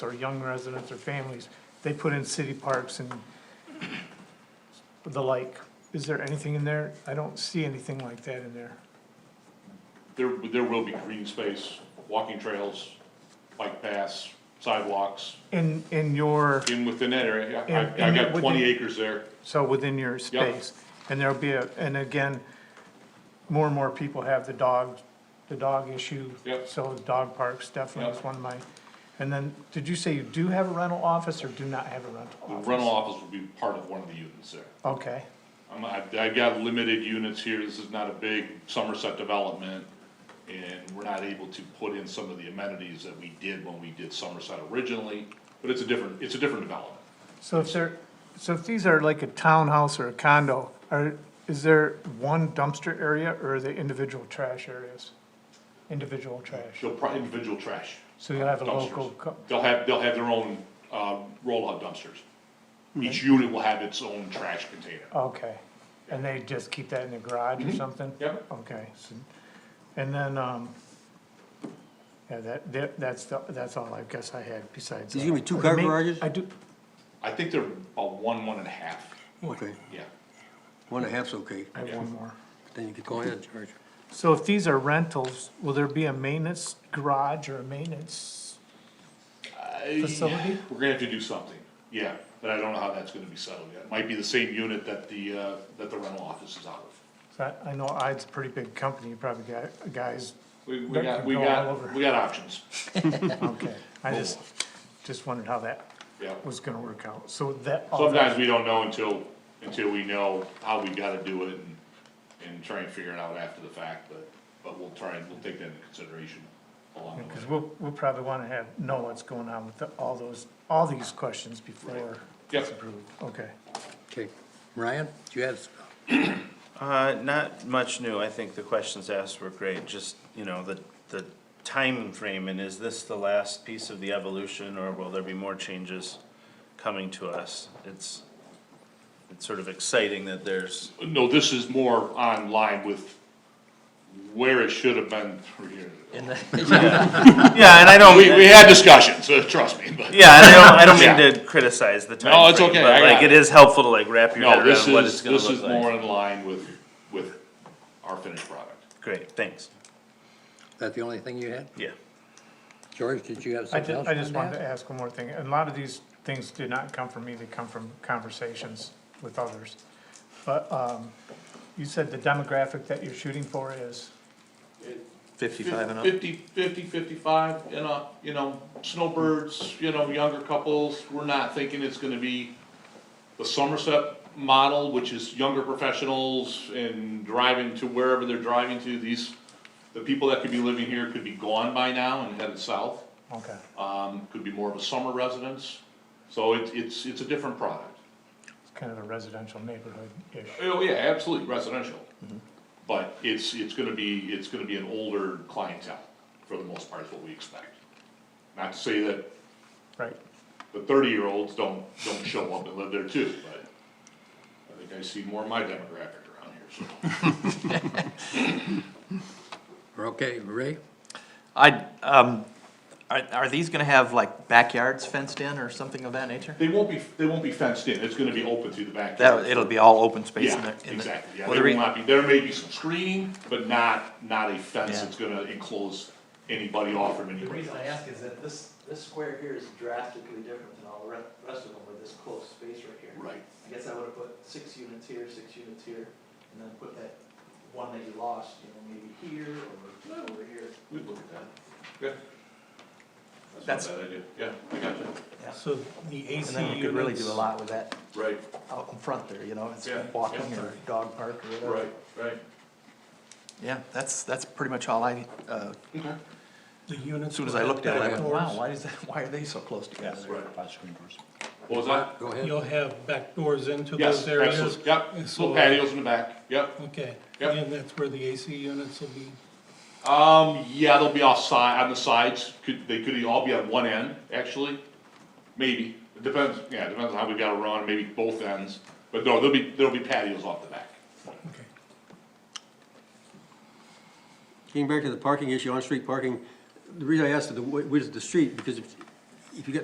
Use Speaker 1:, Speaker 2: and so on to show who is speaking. Speaker 1: or young residents or families, they put in city parks and the like. Is there anything in there? I don't see anything like that in there.
Speaker 2: There, there will be green space, walking trails, bike paths, sidewalks,
Speaker 1: In, in your,
Speaker 2: in within that area.
Speaker 1: And-
Speaker 2: I, I got
Speaker 1: and
Speaker 2: twenty
Speaker 1: within-
Speaker 2: acres there.
Speaker 1: so within your space. And there'll be a, and again, more and more people have the dog, the dog issue.
Speaker 2: Yep.
Speaker 1: So dog parks definitely is
Speaker 2: Yep.
Speaker 1: one of my, and then, did you say you do have a rental office or do not have a rental
Speaker 2: The
Speaker 1: office?
Speaker 2: rental office will be part of one of the units there.
Speaker 1: Okay,
Speaker 2: I'm, I, I got limited units here, this is not a big Somerset development, and we're not able to put in some of the amenities that we did when we did Somerset originally, but it's a different, it's a different development.
Speaker 1: so if there, so if these are like a townhouse or a condo, are, is there one dumpster area or are they individual trash areas? Individual trash,
Speaker 2: They'll probably individual trash
Speaker 1: so you'll have a local,
Speaker 2: dumpsters.
Speaker 1: co-
Speaker 2: They'll have, they'll have their own, uh, roll-out dumpsters. Each unit will have its own trash container.
Speaker 1: okay, and they just keep that in the garage or something?
Speaker 2: Mm-hmm. Yep.
Speaker 1: Okay, so, and then, um, yeah, that, that, that's, the- that's all I guess I had besides.
Speaker 3: There's
Speaker 1: that.
Speaker 3: gonna be two
Speaker 1: Are
Speaker 3: car
Speaker 1: the ma-
Speaker 3: garages?
Speaker 1: I do,
Speaker 2: I think they're about one, one and a half,
Speaker 3: Okay,
Speaker 2: yeah.
Speaker 3: one and a half's okay,
Speaker 1: I have one more.
Speaker 3: then you could go ahead, George.
Speaker 1: So if these are rentals, will there be a maintenance garage or a maintenance?
Speaker 2: I-
Speaker 1: Uh, Facility?
Speaker 2: We're gonna have to do something, yeah, but I don't know how that's gonna be settled yet. Might be the same unit that the, uh, that the rental office is out of.
Speaker 1: I, I know ID's a pretty big company, you probably got, guys,
Speaker 2: We, we
Speaker 1: That
Speaker 2: got,
Speaker 1: could
Speaker 2: we
Speaker 1: go all
Speaker 2: got,
Speaker 1: over.
Speaker 2: we got options,
Speaker 1: okay. I just, just wondered how that
Speaker 2: yeah.
Speaker 1: was gonna work out, so that. all that-
Speaker 2: Sometimes we don't know until, until we know how we gotta do it and, and try and figure it out after the fact, but, but we'll try and, we'll take that into consideration along the
Speaker 1: Cause
Speaker 2: way.
Speaker 1: we'll, we'll probably wanna have, know what's going on with the- all those, all these questions before it's
Speaker 2: Yep.
Speaker 1: approved, okay.
Speaker 3: Okay, Ryan, do you have,
Speaker 4: Uh, not much new, I think the questions asked were great, just, you know, the, the frame. and is this the last piece of the evolution, or will there be more changes coming to us? It's, it's sort of exciting that there's,
Speaker 2: No, this is more online with where it should have been three years ago.
Speaker 4: yeah, and I don't,
Speaker 2: We, we
Speaker 4: yeah,
Speaker 2: had discussions, uh, trust me, but.
Speaker 4: and I don't, I don't
Speaker 2: Yeah.
Speaker 4: mean to criticize the timeframe.
Speaker 2: No, it's okay, I
Speaker 4: But
Speaker 2: got
Speaker 4: like, it
Speaker 2: it.
Speaker 4: is helpful to like wrap your
Speaker 2: No,
Speaker 4: head
Speaker 2: this
Speaker 4: around what it's
Speaker 2: is,
Speaker 4: gonna
Speaker 2: this is
Speaker 4: look
Speaker 2: more
Speaker 4: like.
Speaker 2: in line with, with our finished product.
Speaker 4: Great, thanks,
Speaker 3: is that the only thing you had?
Speaker 4: yeah.
Speaker 3: George, did you have
Speaker 1: I
Speaker 3: something else?
Speaker 1: just, I just
Speaker 3: on
Speaker 1: wanted to
Speaker 3: that?
Speaker 1: ask one more thing, and a lot of these things did not come from me, they come from conversations with others. But, um, you said the demographic that you're shooting for is?
Speaker 4: Fifty-five and up?
Speaker 2: Fifty, fifty, fifty-five, and, uh, you know, snowbirds, you know, younger couples, we're not thinking it's gonna be the Somerset model, which is younger professionals and driving to wherever they're driving to, these, the people that could be living here could be gone by now and headed south,
Speaker 1: Okay,
Speaker 2: um, could be more of a summer residence, so it's, it's, it's a different product.
Speaker 1: it's kind of a residential neighborhood-ish.
Speaker 2: Oh, yeah, absolutely, residential.
Speaker 5: Mm-hmm.
Speaker 2: But it's, it's gonna be, it's gonna be an older clientele, for the most part, is what we expect. Not to say that
Speaker 1: Right,
Speaker 2: the thirty-year-olds don't, don't show up and live there too, but I think I see more of my demographic around here, so.
Speaker 3: We're Okay, Ray,
Speaker 5: I, um, are, are these gonna have like backyards fenced in or something of that nature?
Speaker 2: They won't be, they won't be fenced in, it's gonna be open through the
Speaker 5: That,
Speaker 2: backyard.
Speaker 5: it'll be all open space in
Speaker 2: Yeah,
Speaker 5: the, in the.
Speaker 2: exactly, yeah,
Speaker 5: Well,
Speaker 2: there
Speaker 5: the
Speaker 2: will
Speaker 5: re-
Speaker 2: not be, there may be some screening, but not, not a fence
Speaker 5: Yeah.
Speaker 2: that's gonna enclose anybody off from
Speaker 6: The
Speaker 2: anybody
Speaker 6: reason
Speaker 2: else.
Speaker 6: I ask is that this, this square here is drastically different than all the re- rest of them with this close space right here.
Speaker 2: Right,
Speaker 6: I guess I would've put six units here, six units here, and then put that one that you lost, you know, maybe here or over here.
Speaker 2: we'd look at that, yeah.
Speaker 5: That's-
Speaker 2: That's not a bad idea, yeah, I got you.
Speaker 7: So the
Speaker 5: And
Speaker 7: AC
Speaker 5: then you could really do a
Speaker 7: units,
Speaker 5: lot with that
Speaker 2: Right,
Speaker 5: out in front there, you know, it's
Speaker 2: Yeah,
Speaker 5: walking
Speaker 2: yeah.
Speaker 5: or dog park or whatever.
Speaker 2: right, right.
Speaker 5: Yeah, that's, that's pretty much all I, uh,
Speaker 7: the units.
Speaker 5: as soon as
Speaker 7: will
Speaker 5: I
Speaker 7: have
Speaker 5: looked at it, I
Speaker 7: back
Speaker 5: went,
Speaker 7: doors.
Speaker 5: wow, why is that, why are they so close together?
Speaker 2: Right. What was that?
Speaker 3: go ahead.
Speaker 7: You'll have back doors into
Speaker 2: Yes,
Speaker 7: those areas?
Speaker 2: absolutely, yep,
Speaker 7: And so-
Speaker 2: little patios in the back, yep.
Speaker 7: Okay,
Speaker 2: Yep.
Speaker 7: and that's where the AC units will be?
Speaker 2: Um, yeah, they'll be offside, on the sides, could, they could all be on one end, actually, maybe, it depends, yeah, it depends on how we gotta run, maybe both ends. But no, there'll be, there'll be patios off the back.
Speaker 7: Okay.
Speaker 3: Getting back to the parking issue, on-street parking, the reason I asked the, wh- where's the street, because if, if you get